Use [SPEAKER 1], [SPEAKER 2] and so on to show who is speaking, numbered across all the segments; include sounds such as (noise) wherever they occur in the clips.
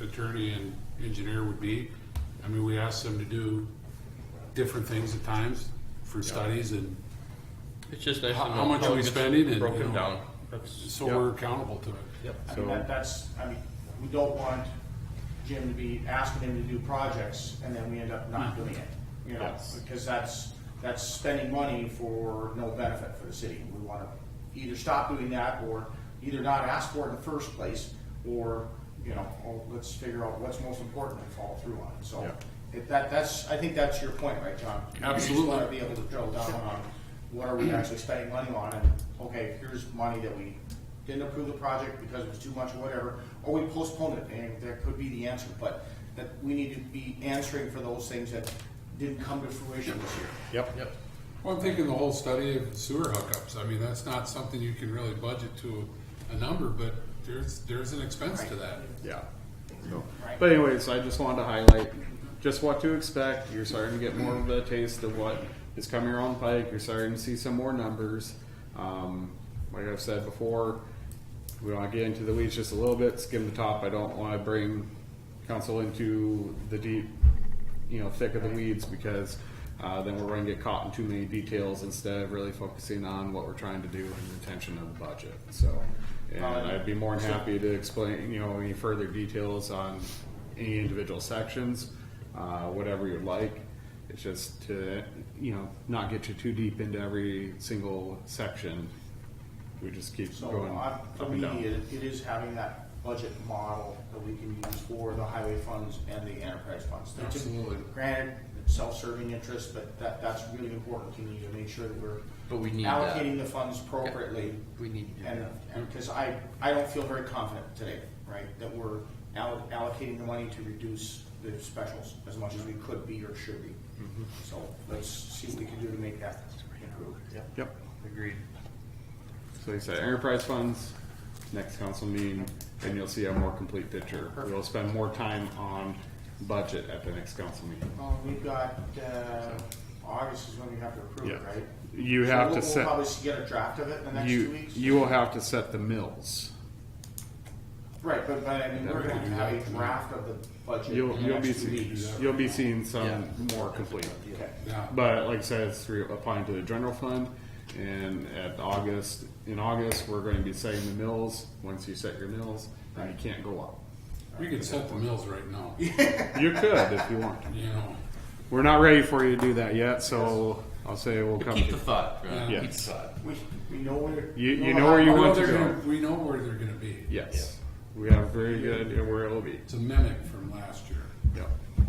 [SPEAKER 1] attorney and engineer would be. I mean, we asked them to do different things at times for studies and
[SPEAKER 2] It's just nice to
[SPEAKER 1] How-
[SPEAKER 2] know.
[SPEAKER 1] how much are we
[SPEAKER 2] it gets
[SPEAKER 1] spending and, you
[SPEAKER 2] Broken
[SPEAKER 1] know-
[SPEAKER 2] down. That's,
[SPEAKER 1] so we're accountable to it.
[SPEAKER 3] I mean, that, that's, I mean, we don't want Jim to be asking him to do projects and then we end up not doing it, you know? Because that's, that's spending money for no benefit for the city. We wanna either stop doing that or either not ask for it in the first place or, you know, or let's figure out what's most important and follow through on it. So if that, that's, I think that's your point, right, John?
[SPEAKER 1] Absolutely.
[SPEAKER 3] You just wanna be able to drill down on what are we actually spending money on, and, okay, here's money that we didn't approve the project because it was too much or whatever, or we postponed it, and that could be the answer, but that we need to be answering for those things that didn't come to fruition this year.
[SPEAKER 4] Yep.
[SPEAKER 2] yep.
[SPEAKER 1] Well, I'm thinking the whole study of sewer hookups, I mean, that's not something you can really budget to a number, but there's, there's an expense to that.
[SPEAKER 4] Yeah. So,
[SPEAKER 3] Right.
[SPEAKER 4] but anyways, I just wanted to highlight just what to expect. You're starting to get more of a taste of what is coming around the pike. You're starting to see some more numbers. Um, like I've said before, we want to get into the weeds just a little bit, skim the top. I don't want to bring council into the deep, you know, thick of the weeds because uh, then we're going to get caught in too many details instead of really focusing on what we're trying to do and the intention of the budget. So, and I'd be more than happy to explain, you know, any further details on any individual sections, uh, whatever you'd like. It's just to, you know, not get you too deep into every single section. We just keep
[SPEAKER 3] So,
[SPEAKER 4] going
[SPEAKER 3] I-
[SPEAKER 4] up
[SPEAKER 3] for
[SPEAKER 4] and
[SPEAKER 3] me,
[SPEAKER 4] down.
[SPEAKER 3] it it is having that budget model that we can use for the highway funds and the enterprise funds. They're typ-
[SPEAKER 1] Absolutely.
[SPEAKER 3] Granted, it's self-serving interest, but that, that's really important to me to make sure that we're
[SPEAKER 2] But we need that.
[SPEAKER 3] allocating the funds appropriately.
[SPEAKER 2] We need to do
[SPEAKER 3] And,
[SPEAKER 2] that.
[SPEAKER 3] because I, I don't feel very confident today, right, that we're al- allocating the money to reduce the specials as much as we could be or should be.
[SPEAKER 2] Mm-hmm.
[SPEAKER 3] So let's see what we can do to make that improve.
[SPEAKER 4] Yep.
[SPEAKER 2] Agreed.
[SPEAKER 4] So like I said, enterprise funds, next council meeting, and you'll see a more complete picture. We'll spend more time on budget at the next council meeting.
[SPEAKER 3] Well, Um, we've got, uh, August is when we have to approve it,
[SPEAKER 4] Yeah.
[SPEAKER 3] right?
[SPEAKER 4] You
[SPEAKER 3] So
[SPEAKER 4] have
[SPEAKER 3] we'll-
[SPEAKER 4] to set-
[SPEAKER 3] We'll probably s- get a draft of it in the next two
[SPEAKER 4] You,
[SPEAKER 3] weeks.
[SPEAKER 4] you will have to set the mills.
[SPEAKER 3] Right, but, but I mean, we're gonna have a draft of the budget in
[SPEAKER 4] You'll,
[SPEAKER 3] the
[SPEAKER 4] you'll be,
[SPEAKER 3] next two
[SPEAKER 4] see-
[SPEAKER 3] weeks.
[SPEAKER 4] you'll be seeing some more complete.
[SPEAKER 3] Okay.
[SPEAKER 1] Yeah,
[SPEAKER 4] But like I said, it's through applying to the general fund and at August, in August, we're going to be setting the mills. Once you set your mills, then you can't go up.
[SPEAKER 1] we could set the mills right now, you
[SPEAKER 4] You could if you want.
[SPEAKER 1] know,
[SPEAKER 4] We're not ready for you to do that yet, so I'll say we'll come.
[SPEAKER 2] Keep
[SPEAKER 4] to-
[SPEAKER 2] the thought. Right?
[SPEAKER 1] Yeah.
[SPEAKER 2] Keep the thought.
[SPEAKER 3] We, we know where.
[SPEAKER 4] You-
[SPEAKER 3] we
[SPEAKER 4] you know where
[SPEAKER 3] how-
[SPEAKER 4] you
[SPEAKER 1] We know
[SPEAKER 4] want to
[SPEAKER 1] they're
[SPEAKER 4] go.
[SPEAKER 1] gonna- we know where they're gonna be.
[SPEAKER 4] Yes. We have a very good idea where it'll be.
[SPEAKER 1] It's a mimic from last year.
[SPEAKER 4] Yep.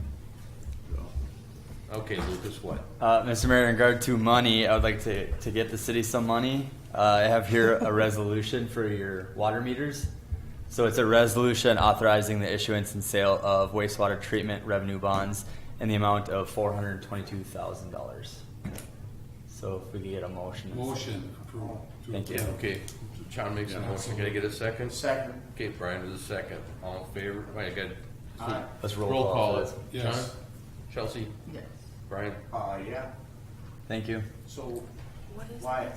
[SPEAKER 2] Okay, Lucas, what?
[SPEAKER 5] Uh, Mr. Mayor, in regard to money, I would like to, to get the city some money. Uh, I have here a resolution for your water meters. So it's a resolution authorizing the issuance and sale of wastewater treatment revenue bonds in the amount of four hundred twenty-two thousand dollars. So if we could get a motion.
[SPEAKER 1] Motion approved.
[SPEAKER 5] Thank you.
[SPEAKER 2] Yeah, okay. John makes a motion. Can I get a second?
[SPEAKER 3] Second,
[SPEAKER 2] Okay, Brian is a second. All in favor? Oh, Wait, I got.
[SPEAKER 3] Aye.
[SPEAKER 5] Let's roll call for
[SPEAKER 2] it.
[SPEAKER 5] this.
[SPEAKER 1] Yes.
[SPEAKER 2] John? Chelsea? Yes. Brian?
[SPEAKER 3] uh, yeah,
[SPEAKER 5] Thank you.
[SPEAKER 3] so why,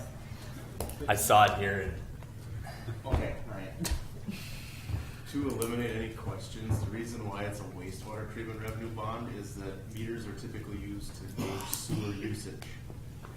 [SPEAKER 5] I saw it here.
[SPEAKER 3] okay, right.
[SPEAKER 6] To eliminate any questions, the reason why it's a wastewater treatment revenue bond is that meters are typically used to gauge sewer usage.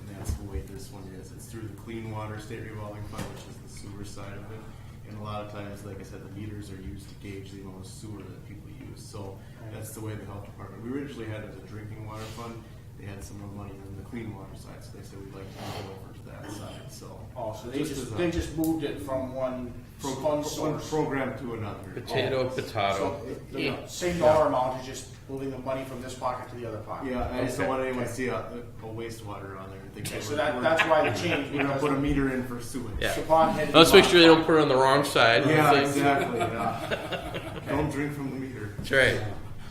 [SPEAKER 6] And that's the way this one is. It's through the Clean Water State Revolving Fund, which is the sewer side of it. And a lot of times, like I said, the meters are used to gauge the amount of sewer that people use. So that's the way the health department, we originally had it as a drinking water fund. They had some more money than the clean water side, so they said we'd like to move over to that side, so.
[SPEAKER 3] Oh, so they
[SPEAKER 6] Just as
[SPEAKER 3] just,
[SPEAKER 6] a-
[SPEAKER 3] they just moved it from one
[SPEAKER 6] From
[SPEAKER 3] fund
[SPEAKER 6] one
[SPEAKER 3] source.
[SPEAKER 6] program to another. Oh.
[SPEAKER 2] Potato,
[SPEAKER 3] So
[SPEAKER 2] potato.
[SPEAKER 3] the- the same dollar amount is just moving the money from this pocket to the other pocket.
[SPEAKER 6] Yeah, I just
[SPEAKER 3] Okay.
[SPEAKER 6] don't want anyone to see a, a wastewater on there and think.
[SPEAKER 3] Okay,
[SPEAKER 6] that
[SPEAKER 3] so
[SPEAKER 6] we're-
[SPEAKER 3] that,
[SPEAKER 6] we're-
[SPEAKER 3] that's why the change,
[SPEAKER 6] We're gonna
[SPEAKER 3] because
[SPEAKER 6] put a meter in for sewage.
[SPEAKER 2] Yeah.
[SPEAKER 3] Siobhan had.
[SPEAKER 2] Let's make sure they don't put it on the wrong side.
[SPEAKER 3] (laughs)
[SPEAKER 6] Yeah, exactly, yeah. Don't drink from the meter.
[SPEAKER 2] That's right.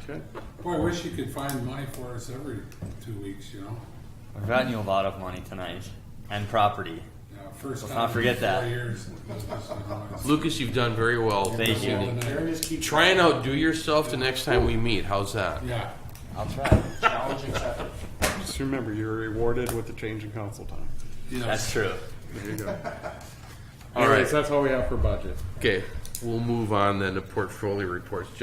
[SPEAKER 4] Okay.
[SPEAKER 1] Boy, I wish you could find money for us every two weeks, you know?
[SPEAKER 5] I've gotten you a lot of money tonight and property.
[SPEAKER 1] Yeah, First
[SPEAKER 5] Let's
[SPEAKER 1] time.
[SPEAKER 5] not forget
[SPEAKER 1] in
[SPEAKER 5] that.
[SPEAKER 1] Four years. it was just an honest-
[SPEAKER 2] Lucas, you've done very well.
[SPEAKER 5] Thank
[SPEAKER 2] this
[SPEAKER 5] you.
[SPEAKER 2] evening.
[SPEAKER 3] Aaron just keeps.
[SPEAKER 2] Try and outdo yourself the next time we meet. How's that?
[SPEAKER 1] Yeah,
[SPEAKER 5] I'll try.
[SPEAKER 3] Challenge accepted.
[SPEAKER 4] Just remember, you're rewarded with the change in council time.
[SPEAKER 5] That's
[SPEAKER 1] yes.
[SPEAKER 5] true.
[SPEAKER 4] There you go.
[SPEAKER 2] All right.
[SPEAKER 4] Anyways, that's all we have for budget.
[SPEAKER 2] Okay, we'll move on then to portfolio reports.